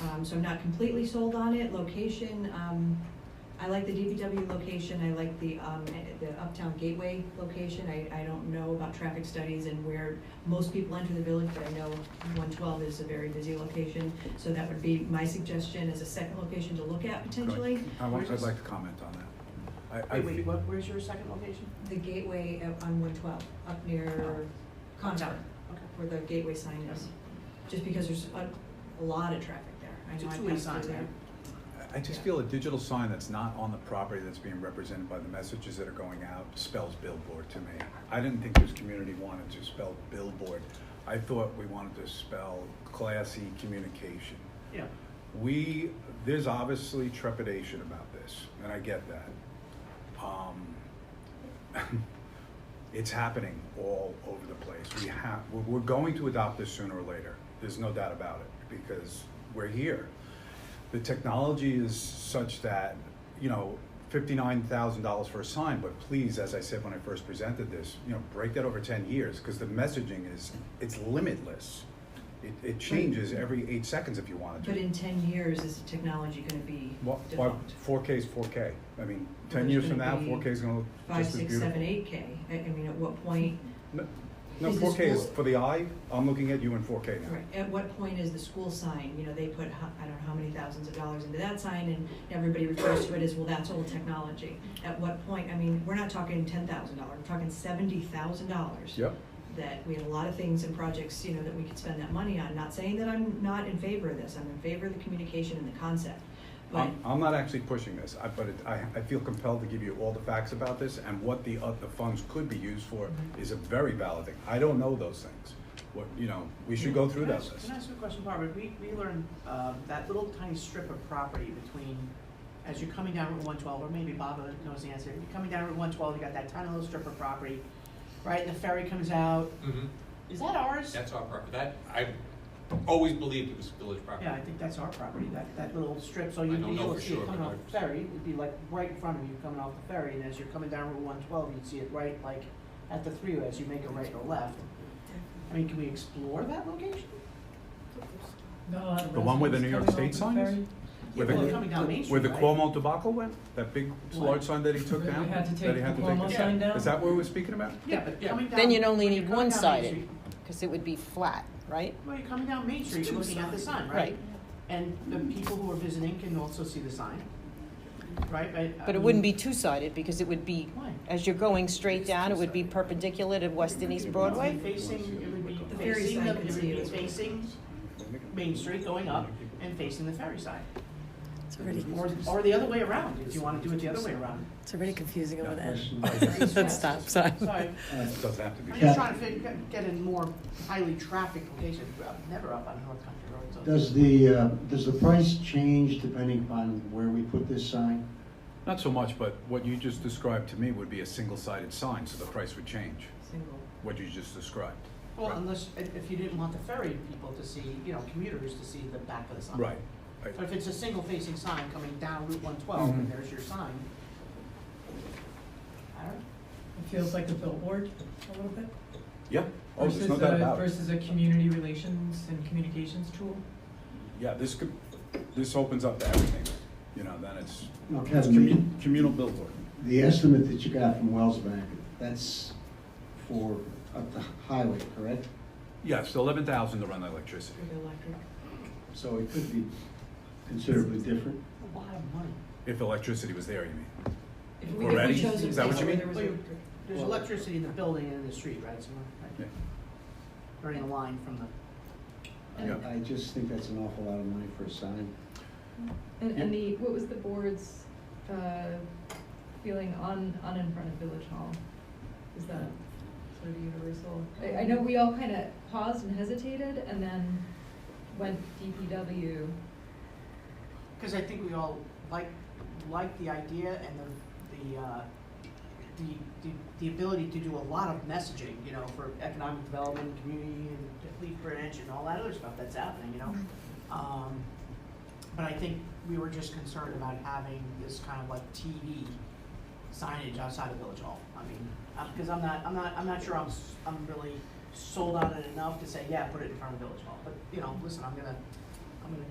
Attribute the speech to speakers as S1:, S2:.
S1: Um, so I'm not completely sold on it, location, um, I like the DPW location, I like the, um, the Uptown Gateway location. I, I don't know about traffic studies and where most people enter the village, but I know one twelve is a very busy location. So that would be my suggestion as a second location to look at potentially.
S2: I want, I'd like to comment on that. I- I
S3: Wait, wait,
S2: fe-
S3: what, where's your second location?
S1: The gateway up on one twelve, up near Concord,
S3: Okay.
S1: where the gateway sign is. Just because there's a, a lot of traffic there. I
S3: It's a
S1: know I've
S3: two-way
S1: passed
S3: sign,
S1: through there.
S3: right?
S2: I just feel a digital sign that's not on the property that's being represented by the messages that are going out spells billboard to me. I didn't think this community wanted to spell billboard. I thought we wanted to spell classy communication.
S3: Yeah.
S2: We, there's obviously trepidation about this, and I get that. Um, it's happening all over the place. We have, we're- we're going to adopt this sooner or later. There's no doubt about it because we're here. The technology is such that, you know, fifty-nine thousand dollars for a sign, but please, as I said when I first presented this, you know, break that over ten years because the messaging is, it's limitless. It, it changes every eight seconds if you want it to.
S1: But in ten years, is the technology gonna be
S2: Well,
S1: developed?
S2: four K is four K. I mean, ten
S1: There's
S2: years from
S1: gonna
S2: now,
S1: be
S2: four K is gonna look
S1: Five,
S2: just as
S1: six, seven,
S2: beautiful.
S1: eight K. I, I mean, at what point,
S2: No- No,
S1: Is
S2: four
S1: this
S2: K is
S1: full-
S2: for the eye. I'm looking at you in four K now.
S1: right, at what point is the school sign, you know, they put, ho- I don't know how many thousands of dollars into that sign and everybody refers to it as, well, that's old technology. At what point, I mean, we're not talking ten thousand dollars, we're talking seventy thousand dollars.
S2: Yep.
S1: that we have a lot of things and projects, you know, that we could spend that money on. Not saying that I'm not in favor of this, I'm in favor of the communication and the concept. But,
S2: I'm, I'm not actually pushing this, I, but it, I, I feel compelled to give you all the facts about this and what the, uh, the funds could be used for is a very valid thing. I don't know those things. What, you know, we should go through
S3: Can I
S2: that
S3: ask-
S2: list.
S3: Can I ask you a question, Barbara? We, we learned, uh, that little tiny strip of property between, as you're coming down Route one twelve, or maybe Bob knows the answer, you're coming down Route one twelve, you got that tiny little strip of property, right, and the ferry comes out,
S4: Mm-hmm,
S3: is that ours?
S4: that's our property, that, I always believed it was village property.
S3: Yeah, I think that's our property, that, that little strip, so
S4: I
S3: you'd
S4: don't
S3: be
S4: know
S3: able
S4: for
S3: to see
S4: sure,
S3: it coming
S4: but
S3: off
S4: I-
S3: the ferry, it'd be like right in front of you coming off the ferry, and as you're coming down Route one twelve, you'd see it right like at the freeway as you make a right or left. I mean, can we explore that location?
S5: Not a lot of
S2: The one where the New York
S5: residents
S2: State
S5: coming off
S2: sign
S5: the
S2: is?
S5: ferry.
S2: Where
S3: Well,
S2: the,
S3: coming down Main Street,
S2: where the
S3: right?
S2: Cuomo debacle went, that big, large sign that he took
S5: Where we
S2: down?
S5: had to
S2: that he
S5: take
S2: had
S5: the
S2: to take
S5: Cuomo
S2: down?
S5: sign
S2: Is
S5: down?
S2: that what we're speaking about?
S3: Yeah, but
S4: Yeah.
S3: coming down.
S6: Then you'd only
S3: when you're
S6: need
S3: coming
S6: one
S3: down Main
S6: sided,
S3: Street-
S6: because it would be flat, right?
S3: Well, you're coming down Main Street, you're looking at the sign, right?
S6: Right.
S3: And the people who are visiting can also see the sign, right? I
S6: But it
S3: mean,
S6: wouldn't be two-sided, because it would be,
S3: Why?
S6: as you're going straight down, it would be perpendicular to West and East Broadway?
S3: It would be facing, it would be
S1: The ferry
S3: facing,
S1: sign
S3: the-
S1: could
S3: it would
S1: see
S3: be
S1: it as well.
S3: facing Main Street going up and facing the ferry side.
S7: It's already,
S3: Or, or the other way around, if you wanna do it the other way around.
S7: it's already confusing over that.
S1: That
S7: That stop sign.
S3: Sorry,
S2: Uh, Doesn't have to be.
S3: I'm just trying to fit- get in more highly trafficked locations, Well, never up on North Country Road, so.
S8: Does the, uh, does the price change depending upon where we put this sign?
S2: Not so much, but what you just described to me would be a single-sided sign, so the price would change,
S1: single.
S2: what you just described.
S3: Well, unless, if if you didn't want the ferry people to see, you know, commuters to see the back of the sign.
S2: Right. Right.
S3: But if it's a single facing sign coming down Route one twelve and
S2: Mhm.
S3: there's your sign. I don't,
S5: It feels like a billboard a little bit.
S2: Yeah, oh, there's
S5: versus
S2: no doubt
S5: a-
S2: about it.
S5: Versus a community relations and communications tool.
S2: Yeah, this could, this opens up to everything, you know, then it's
S8: Now,
S2: it's
S8: Kevin, the-
S2: commu- communal billboard.
S8: the estimate that you got from Wells Bank, that's for up the highway, correct?
S2: Yes, eleven thousand to run the electricity.
S1: With electric.
S8: So it could be considerably different.
S3: a lot of money.
S2: If electricity was there, you mean?
S1: If we, if
S2: Already?
S1: we chose a
S2: Is that
S1: place
S2: what you
S1: where
S2: mean?
S1: there was
S3: Well,
S1: electric.
S3: There's
S8: Well-
S3: electricity in the building and in the street, right, somewhere,
S2: Yeah.
S3: right? Running a line from the,
S2: Yeah.
S8: I I just think that's an awful lot of money for a sign.
S9: And, and the, what was the board's, uh, feeling on, on in front of Village Hall? Is that sort of universal? I, I know we all kind of paused and hesitated and then went DPW.
S3: cause I think we all like, like the idea and the, the, uh, the, the, the ability to do a lot of messaging, you know, for economic development, community and Leaf Branch and all that other stuff that's happening, you know? Um, but I think we were just concerned about having this kind of like TV signage outside of Village Hall. I mean, because I'm not, I'm not, I'm not sure I'm, s- I'm really sold on it enough to say, yeah, put it in front of Village Hall. But, you know, listen, I'm gonna